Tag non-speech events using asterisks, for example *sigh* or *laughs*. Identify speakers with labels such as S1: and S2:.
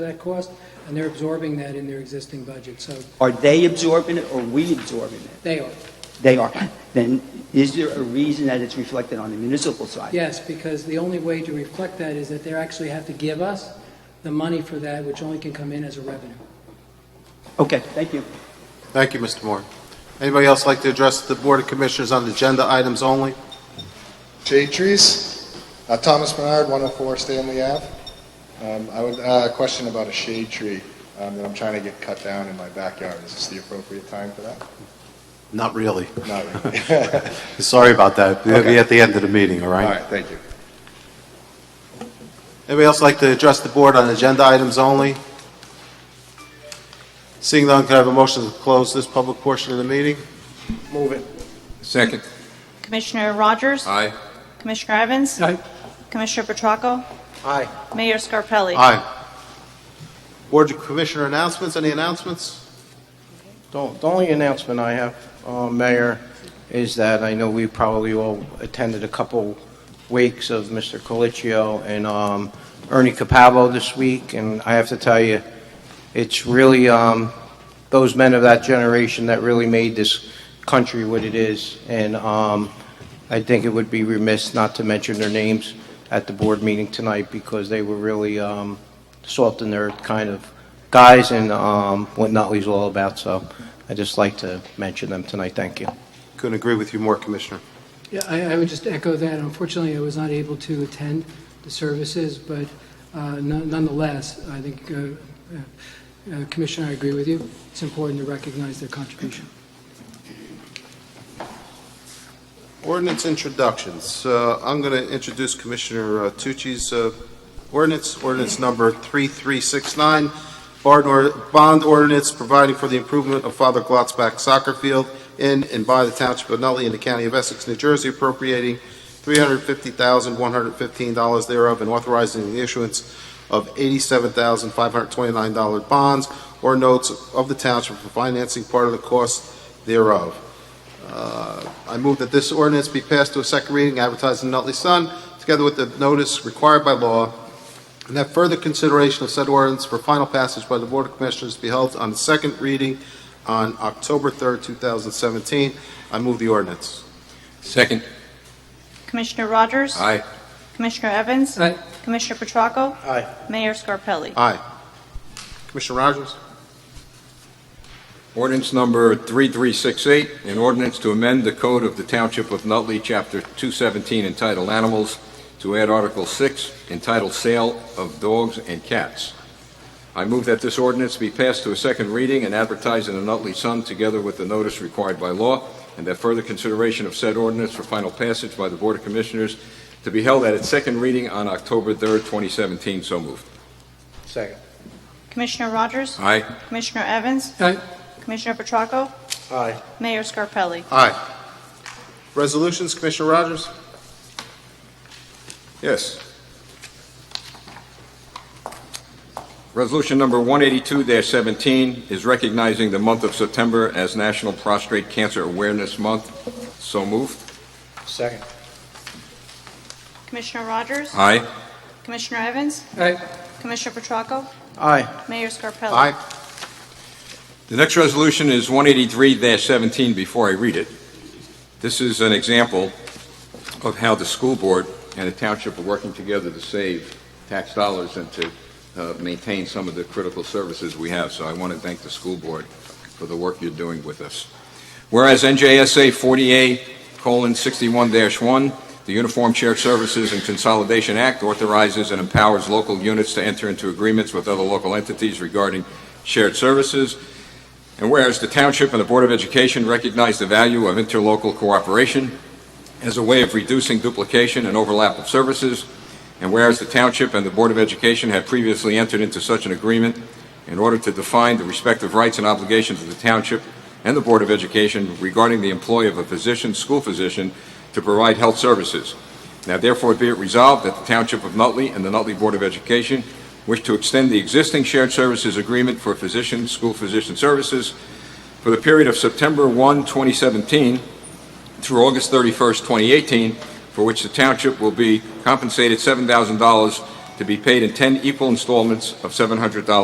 S1: that cost, and they're absorbing that in their existing budget, so
S2: Are they absorbing it or we absorbing it?
S1: they are.
S2: They are. Then is there a reason that it's reflected on the municipal side?
S1: Yes, because the only way to reflect that is that they actually have to give us the money for that, which only can come in as a revenue.
S2: Okay, thank you.
S3: Thank you, Mr. Moore. Anybody else like to address the Board of Commissioners on agenda items only?
S4: Shade trees. Uh, Thomas Bernard, 104 Stanley Ave. Um, I would, uh, a question about a shade tree um, that I'm trying to get cut down in my backyard. Is this the appropriate time for that?
S3: Not really.
S4: Not really.
S3: Sorry about that. We'll be
S4: Okay.
S3: at the end of the meeting, all
S4: *laughs* All
S3: right?
S4: right, thank you.
S3: Anybody else like to address the board on agenda items only? Seeing none, can I have a motion to close this public portion of the meeting?
S2: Move it.
S5: Second.
S6: Commissioner Rogers?
S5: Aye.
S6: Commissioner Evans? Commissioner Petracco?
S2: Aye.
S6: Mayor Scarpelli?
S3: Aye. Board of Commissioner announcements, any announcements?
S7: The the only announcement I have, uh, Mayor, is that I know we probably all attended a couple wakes of Mr. Colicchio and um, Ernie Capavo this week, and I have to tell you, it's really um, those men of that generation that really made this country what it is, and um, I think it would be remiss not to mention their names at the board meeting tonight because they were really um, salt and earth kind of guys and um, what Nutley's all about. So I just like to mention them tonight. Thank you.
S3: Couldn't agree with you more, Commissioner.
S1: Yeah, I, I would just echo that. Unfortunately, I was not able to attend the services, but uh, none- nonetheless, I think, uh, uh, uh, Commissioner, I agree with you. It's important to recognize their contribution.
S3: Ordinance introductions. Uh, I'm going to introduce Commissioner uh, Tucci's uh, ordinance, ordinance number 3369, bond or- bond ordinance providing for the improvement of Father Glotzback Soccer Field in and by the Township of Nutley in the County of Essex, New Jersey, appropriating $350,115 thereof and authorizing the issuance of $87,529 bonds or notes of the township for financing part of the cost thereof. Uh, I move that this ordinance be passed to a second reading, advertised in the Nutley Sun, together with the notice required by law, and that further consideration of said ordinance for final passage by the Board of Commissioners be held on the second reading on October 3rd, 2017. I move the ordinance.
S5: Second.
S6: Commissioner Rogers?
S5: Aye.
S6: Commissioner Evans?
S1: Aye.
S6: Commissioner Petracco?
S7: Aye.
S6: Mayor Scarpelli?
S3: Aye. Commissioner Rogers?
S5: Ordinance number 3368, an ordinance to amend the code of the Township of Nutley, Chapter 217, entitled Animals, to add Article 6, entitled Sale of Dogs and Cats. I move that this ordinance be passed to a second reading and advertised in the Nutley Sun, together with the notice required by law, and that further consideration of said ordinance for final passage by the Board of Commissioners to be held at its second reading on October 3rd, 2017. So moved.
S7: Second.
S6: Commissioner Rogers?
S5: Aye.
S6: Commissioner Evans?
S1: Aye.
S6: Commissioner Petracco?
S7: Aye.
S6: Mayor Scarpelli?
S3: Aye. Resolutions, Commissioner Rogers?
S5: Yes. Resolution number 182-17 is recognizing the month of September as National Prostate Cancer Awareness Month. So moved.
S7: Second.
S6: Commissioner Rogers?
S5: Aye.
S6: Commissioner Evans?
S1: Aye.
S6: Commissioner Petracco?
S7: Aye.
S6: Mayor Scarpelli?
S5: The next resolution is 183-17, before I read it. This is an example of how the school board and the township are working together to save tax dollars and to uh, maintain some of the critical services we have. So I want to thank the school board for the work you're doing with us. Whereas NJSA 48:61-1, the Uniform Shared Services and Consolidation Act authorizes and empowers local units to enter into agreements with other local entities regarding shared services, and whereas the Township and the Board of Education recognize the value of interlocal cooperation as a way of reducing duplication and overlap of services, and whereas the Township and the Board of Education have previously entered into such an agreement in order to define the respective rights and obligations of the Township and the Board of Education regarding the employ of a physician, school physician, to provide health services. Now therefore be it resolved that the Township of Nutley and the Nutley Board of Education wish to extend the existing shared services agreement for physician, school physician services for the period of September 1, 2017 through August 31, 2018, for which the township will be compensated $7,000 to be paid in 10 equal installments of $700